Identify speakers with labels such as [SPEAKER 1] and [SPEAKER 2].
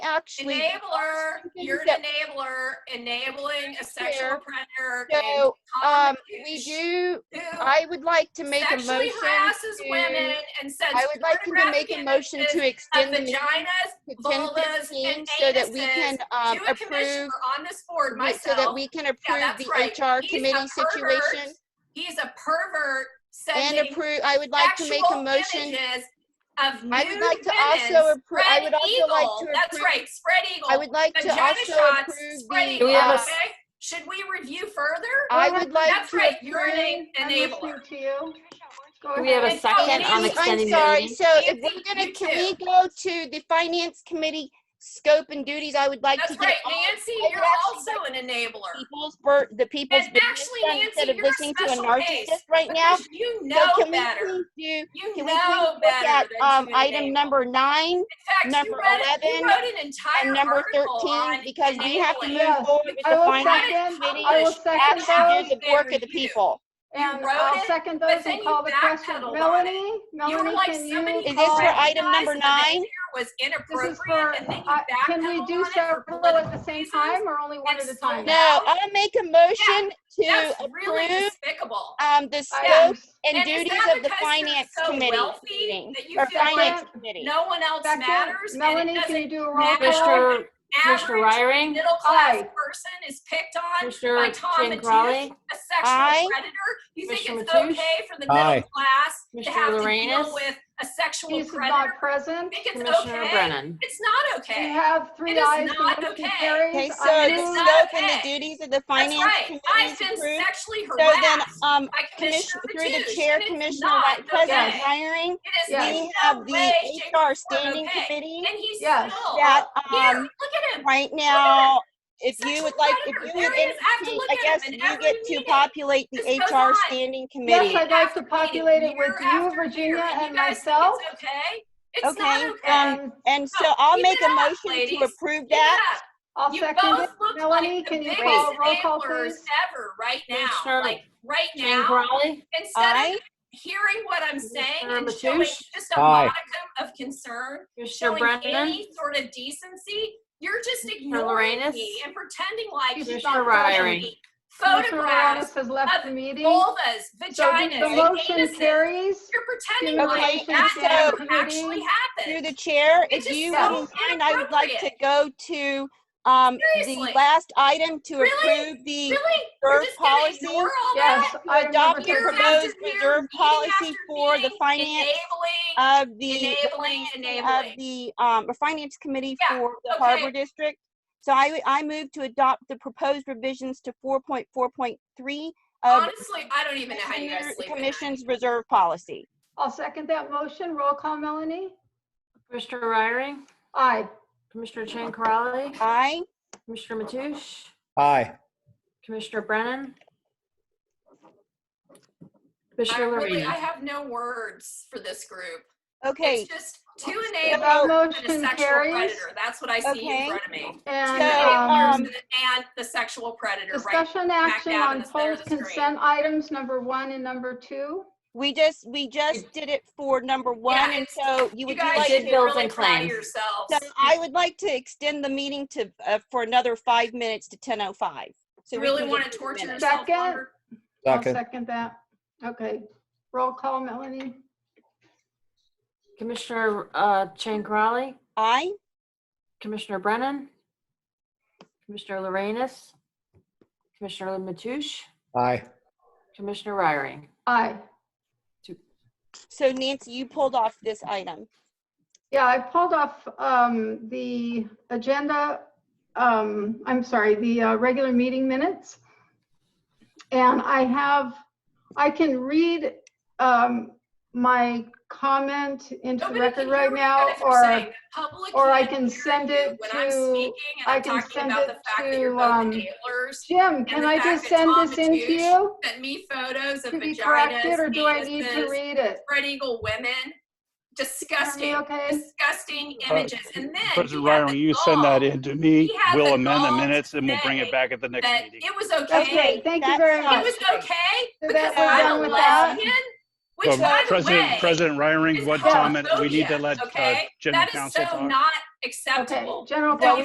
[SPEAKER 1] actually.
[SPEAKER 2] Enabler, you're an
[SPEAKER 1] that-
[SPEAKER 2] enabler, enabling a sexual
[SPEAKER 1] Fair.
[SPEAKER 2] predator. and
[SPEAKER 1] So, um, we
[SPEAKER 2] common
[SPEAKER 1] do,
[SPEAKER 2] who
[SPEAKER 1] I would like to make a motion.
[SPEAKER 2] Sexually harasses
[SPEAKER 1] to-
[SPEAKER 2] women and sends.
[SPEAKER 1] I would like to
[SPEAKER 2] pornographic
[SPEAKER 1] make a motion
[SPEAKER 2] images
[SPEAKER 1] to
[SPEAKER 2] Of
[SPEAKER 1] extend the meeting
[SPEAKER 2] vaginas
[SPEAKER 1] to ten
[SPEAKER 2] vulvas,
[SPEAKER 1] fifteen
[SPEAKER 2] and
[SPEAKER 1] so that we can, um,
[SPEAKER 2] to a commissioner
[SPEAKER 1] approve,
[SPEAKER 2] on this board,
[SPEAKER 1] yeah, so that
[SPEAKER 2] myself.
[SPEAKER 1] we can
[SPEAKER 2] that's
[SPEAKER 1] approve the
[SPEAKER 2] right.
[SPEAKER 1] HR
[SPEAKER 2] He's a
[SPEAKER 1] committee
[SPEAKER 2] pervert
[SPEAKER 1] situation.
[SPEAKER 2] He's a pervert
[SPEAKER 1] And
[SPEAKER 2] sending
[SPEAKER 1] approve, I would like to make a
[SPEAKER 2] sexual
[SPEAKER 1] motion,
[SPEAKER 2] images Of nude
[SPEAKER 1] I would like to
[SPEAKER 2] women,
[SPEAKER 1] also approve, I
[SPEAKER 2] spread
[SPEAKER 1] would also like
[SPEAKER 2] eagle.
[SPEAKER 1] to
[SPEAKER 2] That's
[SPEAKER 1] approve,
[SPEAKER 2] right, spread
[SPEAKER 1] I
[SPEAKER 2] eagle.
[SPEAKER 1] would like to
[SPEAKER 2] Vagina
[SPEAKER 1] also
[SPEAKER 2] shots,
[SPEAKER 1] approve
[SPEAKER 2] spread
[SPEAKER 1] the,
[SPEAKER 3] Do
[SPEAKER 2] eagle,
[SPEAKER 3] we have a
[SPEAKER 2] okay?
[SPEAKER 1] uh,
[SPEAKER 3] s-
[SPEAKER 2] Should we review further?
[SPEAKER 1] I would like
[SPEAKER 2] That's
[SPEAKER 1] to
[SPEAKER 2] right, you're
[SPEAKER 1] approve-
[SPEAKER 2] an en-
[SPEAKER 4] I'm
[SPEAKER 2] enabler.
[SPEAKER 4] listening to you. Go
[SPEAKER 3] Do we have a
[SPEAKER 4] ahead.
[SPEAKER 2] And oh,
[SPEAKER 3] second on
[SPEAKER 2] Nancy,
[SPEAKER 3] extending
[SPEAKER 1] I'm
[SPEAKER 3] the
[SPEAKER 1] sorry.
[SPEAKER 3] meeting?
[SPEAKER 1] So if
[SPEAKER 2] Nancy,
[SPEAKER 1] we're gonna,
[SPEAKER 2] you
[SPEAKER 1] can we go to the finance committee scope and duties? I would like to
[SPEAKER 2] That's
[SPEAKER 1] get
[SPEAKER 2] right,
[SPEAKER 1] all
[SPEAKER 2] Nancy,
[SPEAKER 1] I would
[SPEAKER 2] you're
[SPEAKER 1] actually
[SPEAKER 2] also an enabler.
[SPEAKER 1] people's, bur- the people's
[SPEAKER 2] And
[SPEAKER 1] business
[SPEAKER 2] actually,
[SPEAKER 1] done
[SPEAKER 2] Nancy,
[SPEAKER 1] instead of
[SPEAKER 2] you're a
[SPEAKER 1] listening to a
[SPEAKER 2] special case,
[SPEAKER 1] narcissist right now.
[SPEAKER 2] Because you
[SPEAKER 1] So
[SPEAKER 2] know
[SPEAKER 1] can we
[SPEAKER 2] better.
[SPEAKER 1] please do,
[SPEAKER 2] You
[SPEAKER 1] can we please
[SPEAKER 2] know
[SPEAKER 1] look at,
[SPEAKER 2] better than
[SPEAKER 1] um,
[SPEAKER 2] to
[SPEAKER 1] item
[SPEAKER 2] enable.
[SPEAKER 1] number nine
[SPEAKER 2] In fact, you
[SPEAKER 1] number
[SPEAKER 2] read, you
[SPEAKER 1] 11
[SPEAKER 2] wrote an entire
[SPEAKER 1] and number
[SPEAKER 2] article on.
[SPEAKER 1] thirteen? Because we have to
[SPEAKER 2] enabling.
[SPEAKER 1] move
[SPEAKER 4] Yes,
[SPEAKER 1] forward with the
[SPEAKER 4] I will
[SPEAKER 1] finance
[SPEAKER 4] second,
[SPEAKER 1] committee.
[SPEAKER 4] I will
[SPEAKER 2] English
[SPEAKER 4] second
[SPEAKER 1] Actually do
[SPEAKER 4] those,
[SPEAKER 1] the
[SPEAKER 2] They
[SPEAKER 1] work of the
[SPEAKER 2] review.
[SPEAKER 1] people.
[SPEAKER 4] and
[SPEAKER 2] wrote
[SPEAKER 4] I'll
[SPEAKER 2] it,
[SPEAKER 4] second
[SPEAKER 2] but
[SPEAKER 4] those
[SPEAKER 2] then
[SPEAKER 4] and
[SPEAKER 2] you
[SPEAKER 4] call the question.
[SPEAKER 2] backpedaled on it.
[SPEAKER 4] Melanie,
[SPEAKER 2] You were
[SPEAKER 4] Melanie,
[SPEAKER 2] like,
[SPEAKER 4] can
[SPEAKER 2] somebody.
[SPEAKER 4] you
[SPEAKER 1] Is this
[SPEAKER 4] call?
[SPEAKER 1] for item
[SPEAKER 2] recognized
[SPEAKER 1] number
[SPEAKER 2] that the
[SPEAKER 1] nine?
[SPEAKER 2] behavior Was
[SPEAKER 4] This is
[SPEAKER 2] inappropriate
[SPEAKER 4] for,
[SPEAKER 2] and then you
[SPEAKER 1] uh,
[SPEAKER 4] I- can we
[SPEAKER 2] backpedaled
[SPEAKER 4] do
[SPEAKER 2] on it for
[SPEAKER 4] several at the
[SPEAKER 2] political
[SPEAKER 4] same
[SPEAKER 2] reasons?
[SPEAKER 4] time or only one at a
[SPEAKER 2] It's
[SPEAKER 4] time?
[SPEAKER 2] so-
[SPEAKER 1] No, I'll make a motion to
[SPEAKER 2] That's really
[SPEAKER 1] approve,
[SPEAKER 2] despicable.
[SPEAKER 1] um, the
[SPEAKER 4] I-
[SPEAKER 1] scope and
[SPEAKER 2] is
[SPEAKER 1] duties
[SPEAKER 2] that
[SPEAKER 1] of the
[SPEAKER 2] because you're
[SPEAKER 1] finance
[SPEAKER 2] so
[SPEAKER 1] committee
[SPEAKER 2] wealthy
[SPEAKER 1] meeting,
[SPEAKER 2] that you
[SPEAKER 1] or
[SPEAKER 2] feel like
[SPEAKER 1] finance committee.
[SPEAKER 2] No one else
[SPEAKER 4] Second,
[SPEAKER 2] matters and it
[SPEAKER 4] Melanie, can
[SPEAKER 2] doesn't,
[SPEAKER 4] you do a roll call?
[SPEAKER 2] Matter-
[SPEAKER 3] Mr. Mr.
[SPEAKER 2] average
[SPEAKER 3] Ryring,
[SPEAKER 2] middle class
[SPEAKER 4] Aye.
[SPEAKER 2] person is picked on, by
[SPEAKER 3] Mr.
[SPEAKER 2] Tom
[SPEAKER 3] Jane
[SPEAKER 2] Matisse.
[SPEAKER 3] Crowley,
[SPEAKER 2] a sexual
[SPEAKER 1] Aye.
[SPEAKER 2] predator. You think
[SPEAKER 3] Mr.
[SPEAKER 2] it's
[SPEAKER 3] Matoush?
[SPEAKER 2] okay for the
[SPEAKER 5] Aye.
[SPEAKER 2] middle class to
[SPEAKER 3] Mr.
[SPEAKER 2] have to deal
[SPEAKER 3] Lorenz?
[SPEAKER 2] with a sexual
[SPEAKER 4] He's
[SPEAKER 2] predator?
[SPEAKER 4] not present.
[SPEAKER 2] You think it's
[SPEAKER 3] Commissioner
[SPEAKER 2] okay?
[SPEAKER 3] Brennan.
[SPEAKER 2] It's not
[SPEAKER 4] We
[SPEAKER 2] okay.
[SPEAKER 4] have three
[SPEAKER 2] It is
[SPEAKER 4] ayes,
[SPEAKER 2] not
[SPEAKER 4] the motion
[SPEAKER 2] okay.
[SPEAKER 4] carries.
[SPEAKER 1] Okay, so
[SPEAKER 4] I
[SPEAKER 1] the
[SPEAKER 2] is
[SPEAKER 4] move-
[SPEAKER 2] not
[SPEAKER 1] scope and the
[SPEAKER 2] okay.
[SPEAKER 1] duties of the
[SPEAKER 2] That's
[SPEAKER 1] finance
[SPEAKER 2] right.
[SPEAKER 1] committee
[SPEAKER 2] I've
[SPEAKER 1] is
[SPEAKER 2] been
[SPEAKER 1] approved.
[SPEAKER 2] sexually
[SPEAKER 1] So then,
[SPEAKER 2] harassed
[SPEAKER 1] um,
[SPEAKER 2] by Commissioner
[SPEAKER 1] Commissioner, through the
[SPEAKER 2] Matoush,
[SPEAKER 1] chair,
[SPEAKER 2] and it's
[SPEAKER 1] Commissioner
[SPEAKER 2] not
[SPEAKER 1] Vice President
[SPEAKER 2] okay.
[SPEAKER 1] hiring,
[SPEAKER 2] It is in
[SPEAKER 1] we
[SPEAKER 2] no
[SPEAKER 1] have
[SPEAKER 2] way,
[SPEAKER 1] the
[SPEAKER 2] shape,
[SPEAKER 1] HR
[SPEAKER 2] or form
[SPEAKER 1] standing
[SPEAKER 2] okay.
[SPEAKER 1] committee
[SPEAKER 2] and he's
[SPEAKER 4] Yes.
[SPEAKER 2] still.
[SPEAKER 1] that,
[SPEAKER 2] Here,
[SPEAKER 1] um,
[SPEAKER 2] look at him.
[SPEAKER 1] right now, if you
[SPEAKER 2] Sexual
[SPEAKER 1] would like, if
[SPEAKER 2] predator.
[SPEAKER 1] you
[SPEAKER 2] There
[SPEAKER 1] would
[SPEAKER 2] he is. I have to
[SPEAKER 1] indicate,
[SPEAKER 2] look
[SPEAKER 1] I
[SPEAKER 2] at him
[SPEAKER 1] guess
[SPEAKER 2] in
[SPEAKER 1] you
[SPEAKER 2] every
[SPEAKER 1] get to
[SPEAKER 2] meeting.
[SPEAKER 1] populate the
[SPEAKER 2] This goes
[SPEAKER 1] HR
[SPEAKER 2] on.
[SPEAKER 1] standing
[SPEAKER 4] Yes,
[SPEAKER 1] committee.
[SPEAKER 4] I'd like to
[SPEAKER 2] Meeting
[SPEAKER 4] populate it
[SPEAKER 2] year
[SPEAKER 4] with you,
[SPEAKER 2] after year,
[SPEAKER 4] Virginia,
[SPEAKER 2] you
[SPEAKER 4] and
[SPEAKER 2] guys think
[SPEAKER 4] myself.
[SPEAKER 2] It's okay. It's
[SPEAKER 1] Okay,
[SPEAKER 2] not okay.
[SPEAKER 1] um, And so
[SPEAKER 2] No,
[SPEAKER 1] I'll
[SPEAKER 2] keep
[SPEAKER 1] make
[SPEAKER 2] it
[SPEAKER 1] a
[SPEAKER 2] up,
[SPEAKER 1] motion
[SPEAKER 2] ladies.
[SPEAKER 1] to approve
[SPEAKER 2] Keep it
[SPEAKER 1] that.
[SPEAKER 2] up.
[SPEAKER 4] I'll
[SPEAKER 2] You
[SPEAKER 4] second it.
[SPEAKER 2] both look
[SPEAKER 4] Melanie,
[SPEAKER 2] like the
[SPEAKER 4] can you
[SPEAKER 2] biggest
[SPEAKER 4] call roll call,
[SPEAKER 2] enablers
[SPEAKER 4] please?
[SPEAKER 2] ever right now.
[SPEAKER 3] Commissioner
[SPEAKER 2] Like, right
[SPEAKER 3] Jane
[SPEAKER 2] now,
[SPEAKER 3] Crowley,
[SPEAKER 2] instead
[SPEAKER 1] Aye.
[SPEAKER 2] of hearing what I'm saying
[SPEAKER 3] Commissioner
[SPEAKER 2] and showing
[SPEAKER 3] Matoush?
[SPEAKER 2] just a
[SPEAKER 5] Aye.
[SPEAKER 2] modicum of concern,
[SPEAKER 3] Mr.
[SPEAKER 2] showing
[SPEAKER 3] Brennan,
[SPEAKER 2] any sort of decency, you're just ignoring
[SPEAKER 3] Lorenz?
[SPEAKER 2] me and pretending like
[SPEAKER 4] She's
[SPEAKER 2] you
[SPEAKER 4] not
[SPEAKER 2] don't
[SPEAKER 3] Ryrie.
[SPEAKER 2] see
[SPEAKER 4] Commissioner
[SPEAKER 2] photographs,
[SPEAKER 4] Morales has left
[SPEAKER 2] of
[SPEAKER 4] the meeting. So
[SPEAKER 2] vulvas,
[SPEAKER 4] the-
[SPEAKER 2] vaginas,
[SPEAKER 4] the motion
[SPEAKER 2] anuses.
[SPEAKER 4] carries.
[SPEAKER 2] You're pretending
[SPEAKER 4] Okay,
[SPEAKER 2] like
[SPEAKER 1] so
[SPEAKER 2] that never
[SPEAKER 4] Sandy,
[SPEAKER 2] actually
[SPEAKER 1] Through
[SPEAKER 2] happened.
[SPEAKER 1] the chair,
[SPEAKER 2] It
[SPEAKER 1] if
[SPEAKER 2] just
[SPEAKER 1] you
[SPEAKER 2] sounds
[SPEAKER 1] wouldn't mind, I would like to
[SPEAKER 2] inappropriate.
[SPEAKER 1] go to, um, the
[SPEAKER 2] Seriously.
[SPEAKER 1] last item to
[SPEAKER 2] Really?
[SPEAKER 1] approve the
[SPEAKER 2] Really? You're
[SPEAKER 1] reserve
[SPEAKER 2] just gonna
[SPEAKER 1] policy.
[SPEAKER 2] ignore all that?
[SPEAKER 4] Yes.
[SPEAKER 1] To
[SPEAKER 4] item
[SPEAKER 1] adopt
[SPEAKER 4] number
[SPEAKER 1] and
[SPEAKER 2] Year
[SPEAKER 4] thirteen.
[SPEAKER 1] propose
[SPEAKER 2] after year,
[SPEAKER 1] reserve
[SPEAKER 2] meeting
[SPEAKER 1] policy
[SPEAKER 2] after
[SPEAKER 1] for the
[SPEAKER 2] meeting,
[SPEAKER 1] finance
[SPEAKER 2] Enabling,
[SPEAKER 1] of the
[SPEAKER 2] enabling,
[SPEAKER 1] of
[SPEAKER 2] enabling.
[SPEAKER 1] the, um, a finance committee
[SPEAKER 2] Yeah,
[SPEAKER 1] for the
[SPEAKER 2] okay.
[SPEAKER 1] Harbor District. So I, would- I move to adopt the proposed revisions to four point four point three of
[SPEAKER 2] Honestly, I don't even know how you guys
[SPEAKER 1] Commissioner-
[SPEAKER 2] sleep at night.
[SPEAKER 1] Commission's reserve policy.
[SPEAKER 4] I'll second that motion. Roll call, Melanie?
[SPEAKER 3] Mr. Ryring,
[SPEAKER 4] Aye.
[SPEAKER 3] Commissioner Jane Crowley,
[SPEAKER 1] Aye.
[SPEAKER 3] Commissioner Mathush,
[SPEAKER 5] Aye.
[SPEAKER 3] Commissioner Brennan.
[SPEAKER 2] I
[SPEAKER 3] Commissioner
[SPEAKER 2] really, I
[SPEAKER 3] Lorenz.
[SPEAKER 2] have no words for this group.
[SPEAKER 1] Okay,
[SPEAKER 2] It's just two
[SPEAKER 4] The
[SPEAKER 2] enablers and a
[SPEAKER 4] motion
[SPEAKER 2] sexual
[SPEAKER 4] carries.
[SPEAKER 2] predator. That's what I see in
[SPEAKER 1] Okay.
[SPEAKER 2] front of me. Two
[SPEAKER 4] And,
[SPEAKER 1] So,
[SPEAKER 4] um,
[SPEAKER 2] enablers
[SPEAKER 1] um,
[SPEAKER 2] and and the sexual predator, right?
[SPEAKER 4] discussion
[SPEAKER 2] back
[SPEAKER 4] action
[SPEAKER 2] down
[SPEAKER 4] on
[SPEAKER 2] the center of
[SPEAKER 4] post
[SPEAKER 2] the screen.
[SPEAKER 4] consent items, number one and number two.
[SPEAKER 1] we just, we just did it for number one, and
[SPEAKER 2] it's-
[SPEAKER 1] so you
[SPEAKER 2] You
[SPEAKER 1] would you
[SPEAKER 2] guys
[SPEAKER 1] like
[SPEAKER 2] should
[SPEAKER 3] did
[SPEAKER 2] be
[SPEAKER 1] to.
[SPEAKER 3] bills
[SPEAKER 2] really
[SPEAKER 3] and
[SPEAKER 2] proud of
[SPEAKER 3] claims.
[SPEAKER 2] yourselves.
[SPEAKER 1] So I would like to extend the meeting to, uh, for another five minutes to ten oh five. So
[SPEAKER 2] You
[SPEAKER 1] we
[SPEAKER 2] really
[SPEAKER 1] can
[SPEAKER 2] want
[SPEAKER 1] get
[SPEAKER 2] to
[SPEAKER 1] to the
[SPEAKER 2] torture
[SPEAKER 1] minutes.
[SPEAKER 2] yourself
[SPEAKER 4] Second.
[SPEAKER 2] longer?
[SPEAKER 4] I'll
[SPEAKER 5] Second.
[SPEAKER 4] second that. Okay. Roll call, Melanie?
[SPEAKER 3] Commissioner uh, Jane Crowley,
[SPEAKER 1] Aye.
[SPEAKER 3] Commissioner Brennan, Commissioner Lorenz, Commissioner Mathush,
[SPEAKER 5] Aye.
[SPEAKER 3] Commissioner Ryring.
[SPEAKER 4] Aye.
[SPEAKER 1] So Nancy, you pulled off this item.
[SPEAKER 4] Yeah, I pulled off um, the agenda, um, I'm sorry, the uh, regular meeting minutes. And I have, I can read um, my comment into the
[SPEAKER 2] Nobody
[SPEAKER 4] record
[SPEAKER 2] can hear what
[SPEAKER 4] right
[SPEAKER 2] you
[SPEAKER 4] now,
[SPEAKER 2] guys are saying.
[SPEAKER 4] or
[SPEAKER 2] The public
[SPEAKER 4] or I
[SPEAKER 2] can't
[SPEAKER 4] can
[SPEAKER 2] hear
[SPEAKER 4] send
[SPEAKER 2] you
[SPEAKER 4] it
[SPEAKER 2] when I'm
[SPEAKER 4] to-
[SPEAKER 2] speaking and
[SPEAKER 4] I
[SPEAKER 2] I'm
[SPEAKER 4] can
[SPEAKER 2] talking
[SPEAKER 4] send
[SPEAKER 2] about the
[SPEAKER 4] it
[SPEAKER 2] fact that you're
[SPEAKER 4] to,
[SPEAKER 2] both
[SPEAKER 4] um,
[SPEAKER 2] enablers.
[SPEAKER 4] Jim,
[SPEAKER 2] and
[SPEAKER 4] can
[SPEAKER 2] the
[SPEAKER 4] I
[SPEAKER 2] fact
[SPEAKER 4] just
[SPEAKER 2] that
[SPEAKER 4] send
[SPEAKER 2] Tom
[SPEAKER 4] this in to
[SPEAKER 2] Matoush
[SPEAKER 4] you
[SPEAKER 2] Sent me photos of
[SPEAKER 4] to be
[SPEAKER 2] vaginas,
[SPEAKER 4] corrected, or do I need to
[SPEAKER 2] anuses,
[SPEAKER 4] read it?
[SPEAKER 2] spread eagle women.
[SPEAKER 4] Are we
[SPEAKER 2] Disgusting,
[SPEAKER 4] okay?
[SPEAKER 2] disgusting
[SPEAKER 6] Uh,
[SPEAKER 2] images. And then
[SPEAKER 6] President
[SPEAKER 2] he had
[SPEAKER 6] Ryan,
[SPEAKER 2] the
[SPEAKER 6] will you send that
[SPEAKER 2] gall
[SPEAKER 6] in to me?
[SPEAKER 2] He had the
[SPEAKER 6] We'll amend the
[SPEAKER 2] gall
[SPEAKER 6] minutes and we'll bring
[SPEAKER 2] today
[SPEAKER 6] it back at the next
[SPEAKER 2] That
[SPEAKER 6] meeting.
[SPEAKER 2] it was
[SPEAKER 4] That's
[SPEAKER 2] okay.
[SPEAKER 4] great, thank you
[SPEAKER 1] That's
[SPEAKER 4] very
[SPEAKER 1] fine.
[SPEAKER 2] It
[SPEAKER 4] much.
[SPEAKER 2] was okay
[SPEAKER 4] So
[SPEAKER 2] because
[SPEAKER 4] that we're
[SPEAKER 2] I'm
[SPEAKER 4] done
[SPEAKER 2] a
[SPEAKER 4] with that?
[SPEAKER 2] lesbian Which,
[SPEAKER 6] So,
[SPEAKER 2] by the
[SPEAKER 6] President,
[SPEAKER 2] way,
[SPEAKER 6] President Reiring,
[SPEAKER 2] is
[SPEAKER 6] what
[SPEAKER 4] called
[SPEAKER 6] comment, we need to
[SPEAKER 2] homophobia,
[SPEAKER 6] let uh,
[SPEAKER 2] okay?
[SPEAKER 6] general
[SPEAKER 2] that is
[SPEAKER 6] counsel
[SPEAKER 2] so
[SPEAKER 6] talk.
[SPEAKER 2] not
[SPEAKER 4] Okay,
[SPEAKER 2] acceptable.
[SPEAKER 4] general
[SPEAKER 2] That
[SPEAKER 4] counsel.
[SPEAKER 2] you